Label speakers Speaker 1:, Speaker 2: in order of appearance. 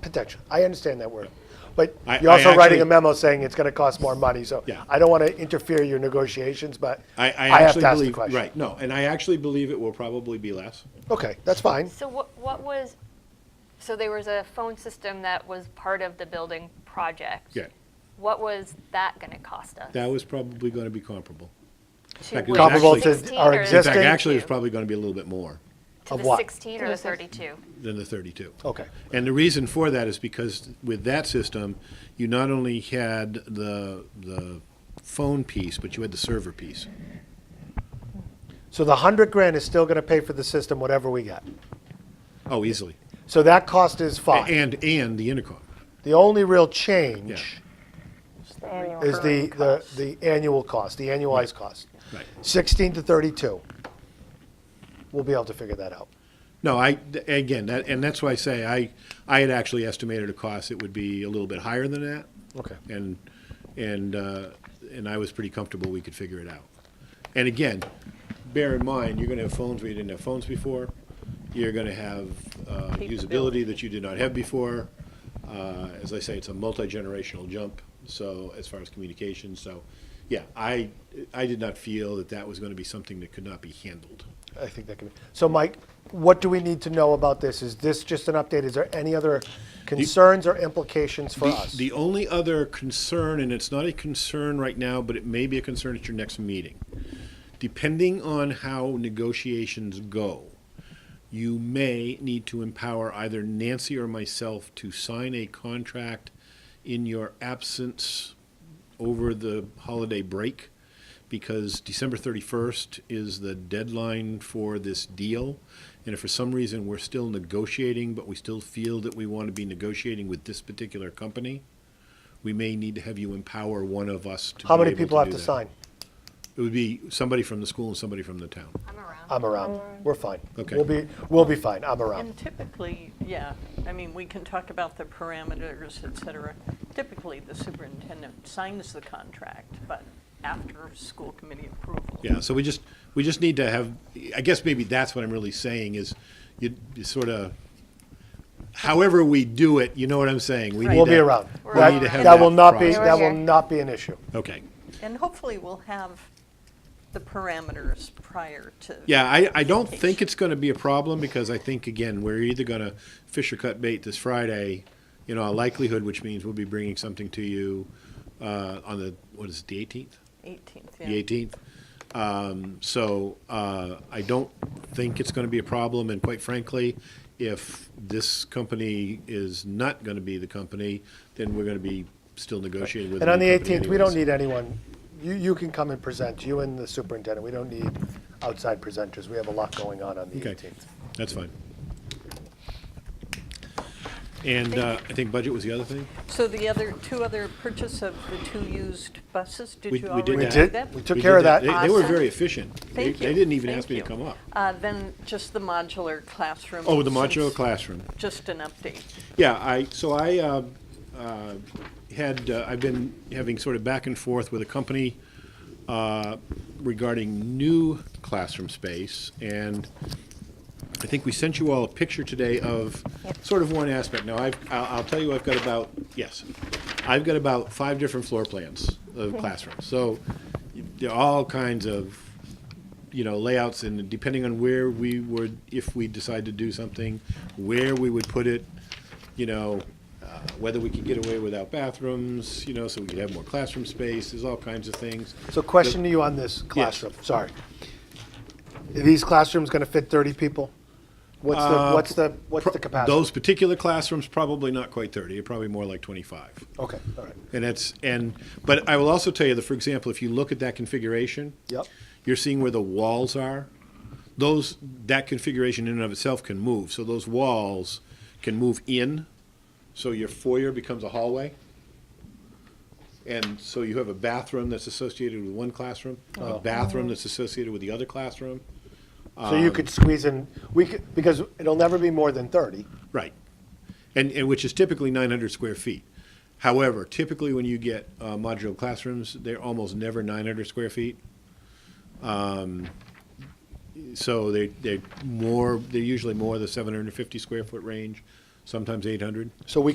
Speaker 1: architecture. I understand that word. But
Speaker 2: I-
Speaker 1: you're
Speaker 2: I
Speaker 1: also writing
Speaker 2: actually-
Speaker 1: a memo saying it's going to cost more money, so
Speaker 2: Yeah.
Speaker 1: I don't want to interfere your negotiations, but
Speaker 2: I, I
Speaker 1: have
Speaker 2: actually
Speaker 1: to ask the
Speaker 2: believe,
Speaker 1: question.
Speaker 2: right, no, and I actually believe it will probably be less.
Speaker 1: Okay, that's fine.
Speaker 3: So what, what was, so there was a phone system that was part of the building project.
Speaker 2: Yeah,
Speaker 3: What was that gonna cost us?
Speaker 2: that was probably gonna be comparable.
Speaker 3: To
Speaker 2: fact, it
Speaker 3: what,
Speaker 2: was
Speaker 1: Comparable
Speaker 2: actually-
Speaker 1: to
Speaker 3: 16
Speaker 1: our
Speaker 3: or the
Speaker 2: In fact,
Speaker 1: existing,
Speaker 3: Thank
Speaker 2: actually, it's
Speaker 3: you.
Speaker 2: probably gonna be a little bit more
Speaker 3: To
Speaker 1: of
Speaker 3: the
Speaker 1: what?
Speaker 3: sixteen or the thirty-two?
Speaker 2: than the thirty-two.
Speaker 1: okay.
Speaker 2: And the reason for that is because with that system, you not only had the, the phone piece, but you had the server piece.
Speaker 1: So the hundred grand is still going to pay for the system, whatever we get.
Speaker 2: Oh, easily.
Speaker 1: So that cost is
Speaker 2: A-
Speaker 1: five.
Speaker 2: And, and the intercom.
Speaker 1: The only real change is the, the,
Speaker 4: cost.
Speaker 1: the annual cost, the annualized cost.
Speaker 2: Right.
Speaker 1: Sixteen to thirty-two. We'll be able to figure that out.
Speaker 2: No, I, th- again, that, and that's why I say I, I had actually estimated a cost that would be a little bit higher than that.
Speaker 1: Okay.
Speaker 2: And, and, uh, and I was pretty comfortable we could figure it out. And again, bear in mind, you're gonna have phones where you didn't have phones before. You're gonna have, uh, usability that you did not have before. Uh, as I say, it's a multi-generational jump, so, as far as communication, so, yeah, I, I did not feel that that was gonna be something that could not be handled.
Speaker 1: I think that can be. So Mike, what do we need to know about this? Is this just an update? Is there any other concerns or implications for
Speaker 2: The-
Speaker 1: us?
Speaker 2: The only other concern, and it's not a concern right now, but it may be a concern at your next meeting. Depending on how negotiations go, you may need to empower either Nancy or myself to sign a contract in your absence over the holiday break, because December 31st is the deadline for this deal. And if for some reason we're still negotiating, but we still feel that we want to be negotiating with this particular company, we may need to have you empower one of us to
Speaker 1: How
Speaker 2: be
Speaker 1: many
Speaker 2: able to
Speaker 1: people have
Speaker 2: do
Speaker 1: to
Speaker 2: that.
Speaker 1: sign?
Speaker 2: It would be somebody from the school and somebody from the town.
Speaker 3: I'm around.
Speaker 1: I'm around. We're fine.
Speaker 2: Okay.
Speaker 1: We'll be, we'll be fine. I'm around.
Speaker 4: And typically, yeah, I mean, we can talk about the parameters, et cetera. Typically, the superintendent signs the contract, but after school committee approval.
Speaker 2: Yeah, so we just, we just need to have, I guess maybe that's what I'm really saying is you you sort of, however we do it, you know what I'm saying? We need
Speaker 1: We'll be
Speaker 2: to-
Speaker 1: around.
Speaker 3: We're
Speaker 2: We
Speaker 1: That-
Speaker 2: need to have
Speaker 1: That will not be,
Speaker 2: process.
Speaker 1: that will
Speaker 3: We're here.
Speaker 1: not be an issue.
Speaker 2: Okay.
Speaker 4: And hopefully, we'll have the parameters prior to.
Speaker 2: Yeah, I, I don't think it's going to be a problem because I think, again, we're either going to fish or cut bait this Friday, you know, a likelihood, which means we'll be bringing something to you uh, on the, what is it, the 18th?
Speaker 4: 18th, yeah.
Speaker 2: the 18th. Um, So uh, I don't think it's going to be a problem, and quite frankly, if this company is not going to be the company, then we're going to be still negotiating with.
Speaker 1: And on the
Speaker 2: new company
Speaker 1: 18th, we don't
Speaker 2: anyways.
Speaker 1: need anyone. You, you can come and present, you and the superintendent. We don't need outside presenters. We have a lot going on on the
Speaker 2: Okay.
Speaker 1: 18th.
Speaker 2: That's fine. And uh, I think budget was the other thing?
Speaker 4: So the other, two other purchase of the two used buses, did
Speaker 2: We-
Speaker 4: you
Speaker 2: we did
Speaker 4: already
Speaker 1: We
Speaker 2: Yeah.
Speaker 4: do
Speaker 1: did,
Speaker 4: that?
Speaker 1: we took
Speaker 2: We
Speaker 1: care
Speaker 2: did
Speaker 1: of that.
Speaker 2: They- They were
Speaker 4: Awesome.
Speaker 2: very efficient. They-
Speaker 4: Thank you.
Speaker 2: They didn't even
Speaker 4: Thank
Speaker 2: ask me to
Speaker 4: you.
Speaker 2: come up.
Speaker 4: Uh, Then just the modular classroom.
Speaker 2: Oh, the modular
Speaker 4: since-
Speaker 2: classroom.
Speaker 4: Just an update.
Speaker 2: Yeah, I, so I uh, uh, had, uh, I've been having sort of back and forth with a company uh, regarding new classroom space, and I think we sent you all a picture today of sort of one aspect. Now, I've, I'll I'll tell you, I've got about, yes, I've got about five different floor plans of classrooms. So there are all kinds of you know, layouts and depending on where we would, if we decide to do something, where we would put it, you know, uh, whether we could get away without bathrooms, you know, so we could have more classroom space, there's all kinds of things.
Speaker 1: So question to you on this classroom, sorry. Are these classrooms going to fit 30 people? What's the, what's the, what's the capacity?
Speaker 2: Those particular classrooms, probably not quite thirty, probably more like twenty-five.
Speaker 1: Okay, all right.
Speaker 2: And that's, and, but I will also tell you that, for example, if you look at that configuration.
Speaker 1: Yep.
Speaker 2: You're seeing where the walls are. Those, that configuration in and of itself can move, so those walls can move in, so your foyer becomes a hallway. And so you have a bathroom that's associated with one classroom,
Speaker 1: Oh.
Speaker 2: a bathroom that's associated with the other classroom.
Speaker 1: So you could squeeze in, we could, because it'll never be more than 30.
Speaker 2: Right. And, and which is typically 900 square feet. However, typically when you get uh, modular classrooms, they're almost never 900 square feet. Um, So they, they're more, they're usually more the 750 square foot range, sometimes 800.
Speaker 1: So we